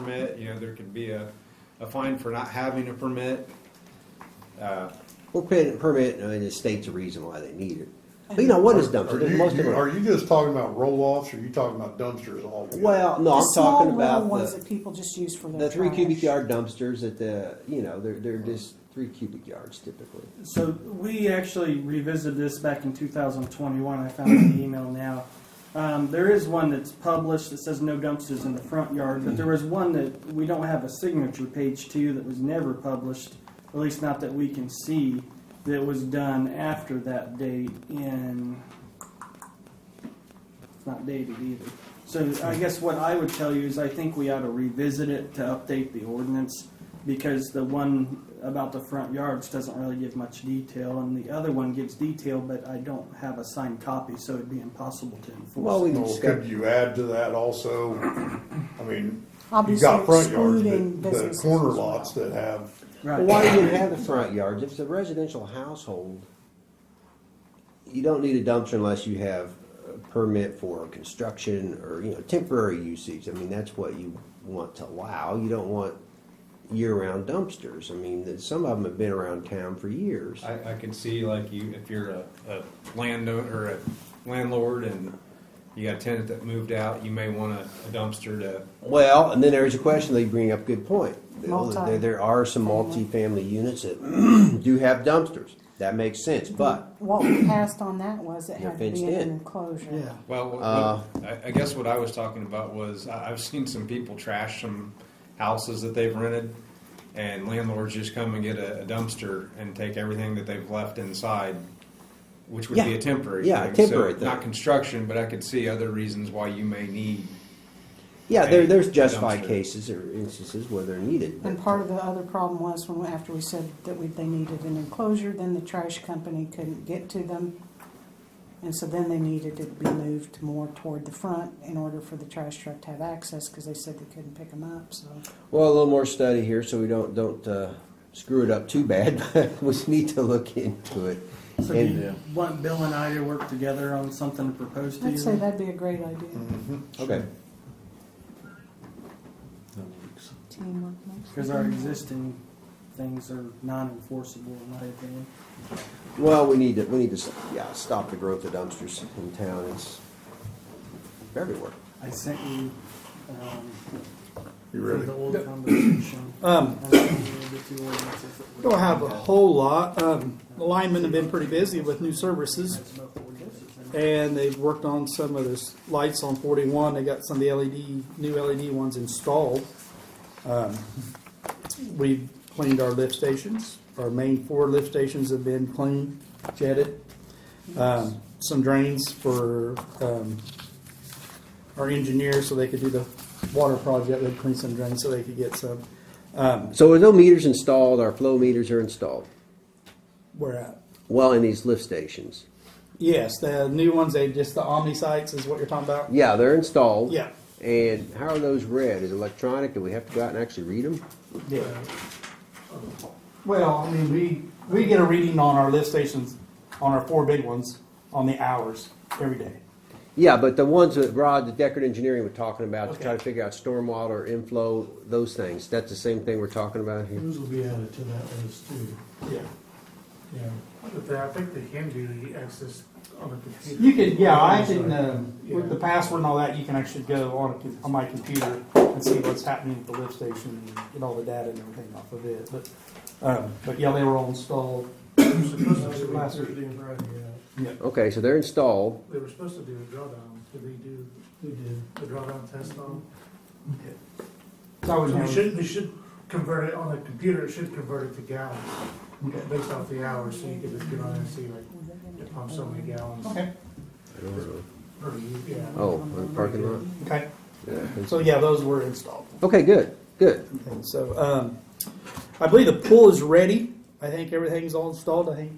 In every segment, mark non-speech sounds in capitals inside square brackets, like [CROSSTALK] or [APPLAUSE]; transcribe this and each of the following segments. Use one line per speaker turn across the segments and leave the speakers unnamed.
permit, you know, there could be a, a fine for not having a permit. Uh,
Well, permit, permit, I mean, the state's a reason why they need it. But you know, one is dumpsters,
Are you-
most of
you-
them are.
Are you just talking about roll-offs, or are you talking about dumpsters all?
Well, no,
The
I'm
small
talking
little
about
ones that
the,
people just use for their
the three cubic
trash.
yard dumpsters at the, you know, they're, they're just three cubic yards typically.
So we actually revisited this back in 2021. I found the email now. Um, there is one that's published that says no dumpsters in the front yard, but there was one that we don't have a signature page to that was never published, at least not that we can see, that was done after that date in. It's not dated either. So I guess what I would tell you is I think we ought to revisit it to update the ordinance because the one about the front yards doesn't really give much detail, and the other one gives detail, but I don't have a signed copy, so it'd be impossible to enforce.
Well, we can
Well, Could
discuss,
you add to that also, I mean, you
Obviously
got front yards,
excluding
but the
businesses
corner
as well.
lots that have,
right.
well, why do you have the front yards? If it's a residential household, you don't need a dumpster unless you have a permit for construction or, you know, temporary usage. I mean, that's what you want to allow. You don't want year-round dumpsters. I mean, that- some of them have been around town for years.
I, I can see like you, if you're a, a landowner or a landlord and you got a tenant that moved out, you may want a a dumpster to
Well, and then there's a question they bring up, good point.
Multi.
There, there are some multi-family units that [CLEARS THROAT] do have dumpsters. That makes sense, but
What we passed on that was it
You're
had to
fenced
be in
in.
an enclosure.
Yeah.
Well, what- what-
Uh,
I, I guess what I was talking about was I, I've seen some people trash some houses that they've rented, and landlords just come and get a, a dumpster and take everything that they've left inside, which would be
Yeah.
a temporary
Yeah, a
thing.
temporary
so
thing.
Not construction, but I could see other reasons why you may need.
yeah, there, there's
A
justified
dumpster.
cases or instances where they're needed.
And
but-
part of the other problem was when, after we said that we, they needed an enclosure, then the trash company couldn't get to them. And so then they needed to be moved more toward the front in order for the trash truck to have access, cause they said they couldn't pick them up, so.
Well, a little more study here, so we don't, don't, uh, screw it up too bad, [LAUGHS] but we need to look into it.
So do you
And-
want Bill and I to work together on something to propose to you?
I'd say that'd be a great idea.
Hmm. mm-hmm.
Okay,
Teamwork makes the
Because our
dream work.
existing things are non-enforceable in my opinion.
well, we need to, we need to, yeah, stop the growth of dumpsters in town. It's everywhere.
I sent you, um,
you
for
really,
the old conversation.
Um,
And I can read the two ordinances that we-
Don't have a whole lot. Um, the linemen have been pretty busy with new services,
That's about the ordinances.
and they've worked on some of those lights on 41. They got some of the LED, new LED ones installed. Um, we've cleaned our lift stations. Our main four lift stations have been cleaned, jetted. Um, some drains for um, our engineers so they could do the water project. They've cleaned some drains so they could get some. Um,
So there's no meters installed, our flow meters are installed,
we're at
well, in these lift stations.
Yes, the new ones, they just the Omni sites is what you're talking about?
Yeah, they're installed.
Yeah.
And how are those read? Is it electronic? Do we have to go out and actually read them?
Yeah. Well, I mean, we, we get a reading on our lift stations, on our four big ones, on the hours every day.
Yeah, but the ones that Rod, the Deckard Engineering were talking about to try
Okay.
to figure out stormwater inflow, those things. That's the same thing we're talking about here.
Those will be added to that list too,
Yeah.
yeah.
But they- I think they can do the access on a computer.
You can, yeah, I can, um, with the password and all that, you can actually go on, a com- on my computer and see what's happening at the lift station and get all the data and everything off of it, but, um, but yeah, they were all installed.
They were supposed to do it
Last week.
Thursday and Friday, yeah.
Okay, so they're installed.
They were supposed to do a drawdown, did they do
We did.
the drawdown test on?
So I was.
We should, we should convert it on a computer, it should convert it to gallons,
Okay.
based off the hours, so you could just get on and see like, it pumps so many gallons
Okay,
I don't know.
per year, yeah.
Oh, on the parking lot?
okay,
Yeah.
so yeah, those were installed.
Okay, good, good.
And so, um, I believe the pool is ready. I think everything's all installed. I think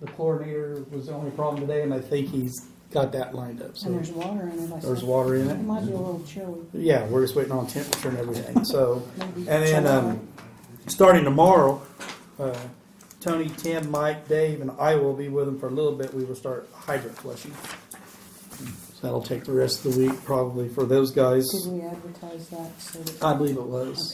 the chlorinator was the only problem today, and I think he's got that lined up.
And
So
there's water in it, I
there's
said.
water in
It
it.
might be a little chilly,
Yeah, we're just waiting on temperature and everything. So,
maybe.
and then, um, starting tomorrow, uh, Tony, Tim, Mike, Dave, and I will be with them for a little bit. We will start hydrant flushing. That'll take the rest of the week probably for those guys.
Did we advertise that so that?
I believe it was.